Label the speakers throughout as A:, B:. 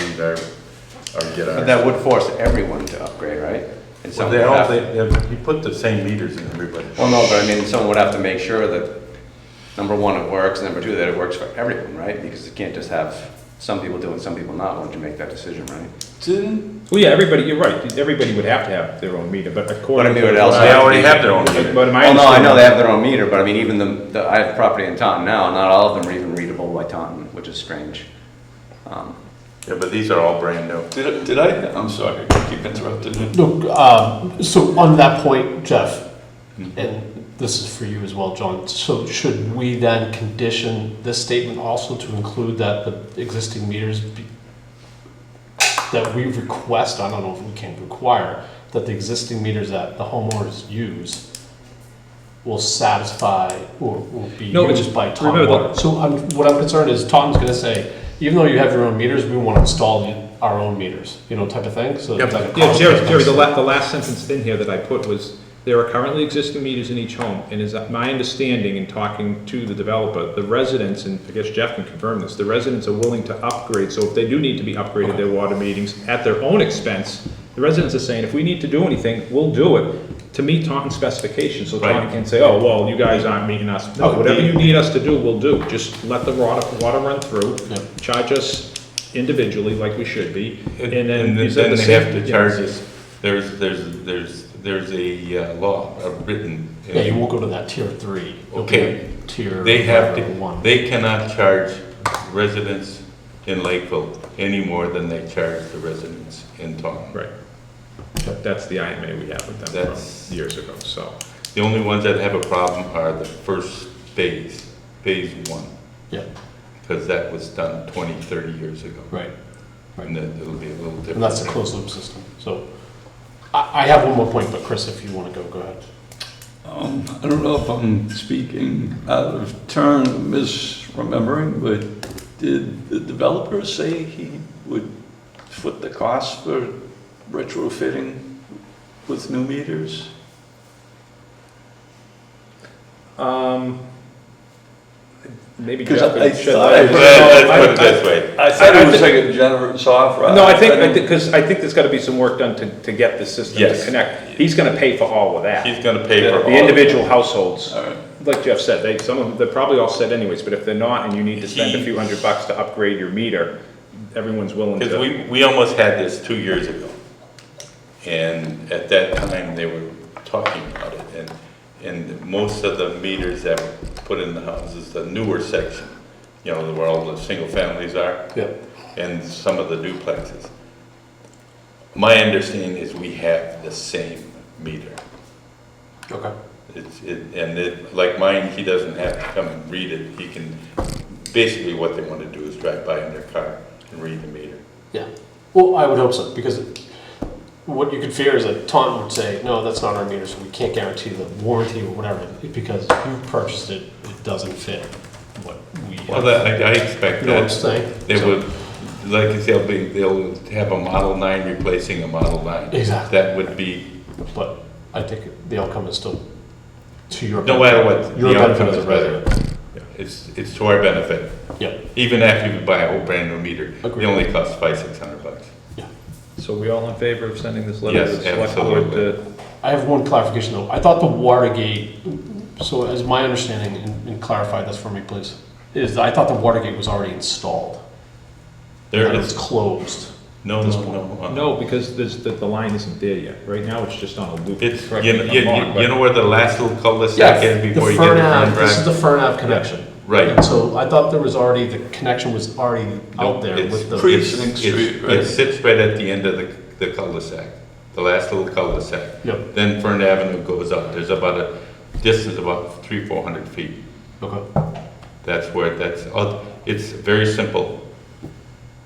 A: upgrade our, or get
B: But
A: our.
B: Uh, that would force everyone to upgrade, right? And
A: Well,
B: someone
A: they
B: would
A: all,
B: have-
A: they, they- you put the same meters in everybody.
B: Well, no, but I mean, someone would have to make sure that, number one, it works, number two, that it works for everyone, right? Because you can't just have some people do it and some people not, once you make that decision, right?
C: Didn't,
D: Well, yeah, everybody, you're right, everybody would have to have their own meter, but
B: But I
D: according
B: mean,
D: to.
B: it would also.
A: They
B: to
A: already
B: be-
A: have their own meter.
D: But my.
B: Well, no, I know they
D: understanding-
B: have their own meter, but I mean, even the, the, I have property in Taunton now, not all of them are even readable by Taunton, which is strange. Um,
A: Yeah, but these are all brand new.
C: did I- did I, I'm sorry, I keep interrupting you.
E: Look, um, so on that point, Jeff,
D: Hmm.
E: and this is for you as well, John, so should we then condition this statement also to include that the existing meters be, that we request, I don't know if we can require, that the existing meters that the homeowners use will satisfy or will be
D: No, it's-
E: used by Taunton
D: remember the-
E: Water? So I'm, what I'm concerned is Taunton's gonna say, even though you have your own meters, we wanna install our own meters, you know, type of thing, so. it's like a
D: Yeah, Jerry,
E: cost-
D: Jerry, the last, the last sentence in here that I put was, there are currently existing meters in each home, and is my understanding in talking to the developer, the residents, and I guess Jeff can confirm this, the residents are willing to upgrade, so if they do need to be upgraded, their water meetings at their own expense, the residents are saying, if we need to do anything, we'll do it, to meet Taunton specifications, so Taunton can say, oh, well, you guys aren't meeting us.
E: Oh,
D: No, whatever you need us to do, we'll do, just let the water, water run through, charge us individually like we should be, and then you said the
A: they have
D: safety-
A: to charge us, there's, there's, there's, there's a uh, law uh, written. in-
E: Yeah, you won't go to that tier three. You'll be
A: Okay.
E: at Tier.
A: They have
E: whatever,
A: to,
E: one.
A: they cannot charge residents in Lakeville any more than they charge the residents in Taunton.
D: Right. That- That's the IMA we had with them
A: That's-
D: from years ago, so.
A: The only ones that have a problem are the first phase, phase one,
E: Yeah,
A: because that was done 20, 30 years ago.
E: right.
A: And then it'll be a little different.
E: And that's a closed loop system. So I, I have one more point, but Chris, if you want to go, go ahead.
C: Um, I don't know if I'm speaking out of turn, misremembering, but did the developer say he would foot the cost for retrofitting with new meters?
D: Um, maybe
C: Because
D: Jeff
C: I
D: could shed
C: thought
D: light.
C: I-
A: But Let's put it this way.
C: I
D: thought it was
C: like a generous offer.
D: No, I think, I think, because I think there's gotta be some work done to, to get the system to
A: Yes.
D: connect. He's gonna pay for all of that.
A: He's gonna pay for all. of
D: The
A: it.
D: individual households,
C: All right.
D: like Jeff said, they, some of, them- they're probably all set anyways, but if they're not and you need to spend a few hundred bucks to upgrade your meter, everyone's willing
A: Because
D: to.
A: we, we almost had this two years ago. And at that time, they were talking about it, and, and most of the meters that were put in the houses, the newer section, you know, where all the single families are,
E: Yeah.
A: and some of the duplexes. My understanding is we have the same meter.
E: Okay.
A: It's, it, and it, like mine, he doesn't have to come and read it, he can, basically what they wanna do is drive by in their car and read the meter.
E: Yeah. Well, I would hope so because what you could fear is that Taunton would say, no, that's not our meter, so we can't guarantee the warranty or whatever because you purchased it, it doesn't fit what we.
A: Well,
E: have.
A: that, I I expect
E: You know what I'm
A: that.
E: saying?
A: They
E: So-
A: would, like you say, they'll be, they'll have a Model 9 replacing a Model 9.
E: Exactly.
A: That would be,
E: But I think the outcome is still to your.
A: no matter what,
E: Your
A: the
E: benefit
A: outcome
E: as
A: is
E: a resident.
A: better. It's, it's to our benefit,
E: Yeah,
A: even after you buy a whole brand new meter. It
E: Agreed.
A: only costs five, 600 bucks.
D: So we all in favor of sending this letter to
A: Yes,
D: the select board
A: absolutely.
D: to
E: I have one clarification though. I thought the Watergate, so as my understanding, and- and clarify this for me, please, is I thought the Watergate was already installed.
A: There
E: That It's
A: is,
E: closed.
A: no,
E: this
A: no,
E: one.
A: no. uh,
D: No, because there's, the, the line isn't there yet. Right now, it's just on a loop.
A: It's,
D: Correct
A: you
D: me
A: know,
D: if I'm
A: you,
D: wrong,
A: you-
D: but-
A: you know where the last little cul-de-sac is
E: The
A: before you get
E: Fern
A: to Fern
E: Ave, this is the
A: Drive?
E: Fern Ave connection.
A: Right.
E: And so I thought there was already, the connection was already
A: Nope,
E: out there
A: it's
E: with the,
C: pre-
A: It's-
C: Precinct
A: it's-
C: Street, right?
A: It sits right at the end of the, the cul-de-sac, the last little cul-de-sac.
E: Yep.
A: Then Fern Avenue goes up, there's about a, distance about three, four hundred feet.
E: okay,
A: That's where, that's, oh, it's very simple.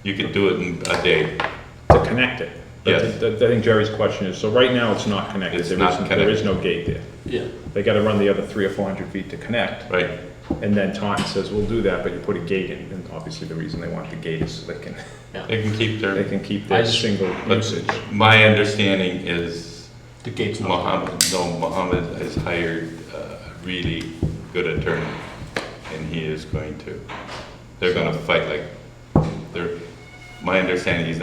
A: You could do it in a day.
D: to connect it. But
A: Yes.
D: th- th- I think Jerry's question is, so right now, it's not connected.
A: It's
D: There
A: not
D: is- There
A: connected.
D: is no gate there.
E: yeah.
D: They gotta run the other three or four hundred feet to connect,
A: Right.
D: and then Taunton says, we'll do that, but you put a gate in, and obviously the reason they want the gate is so they can,
A: They can keep
D: they
A: their,
D: can keep
E: I
D: their
E: just-
D: single
A: but
D: usage.
A: my understanding is
E: The gate's not.
A: Mohammed, no, Mohammed has hired uh, a really good attorney, and he is going to, they're gonna fight like, they're, my understanding, he's not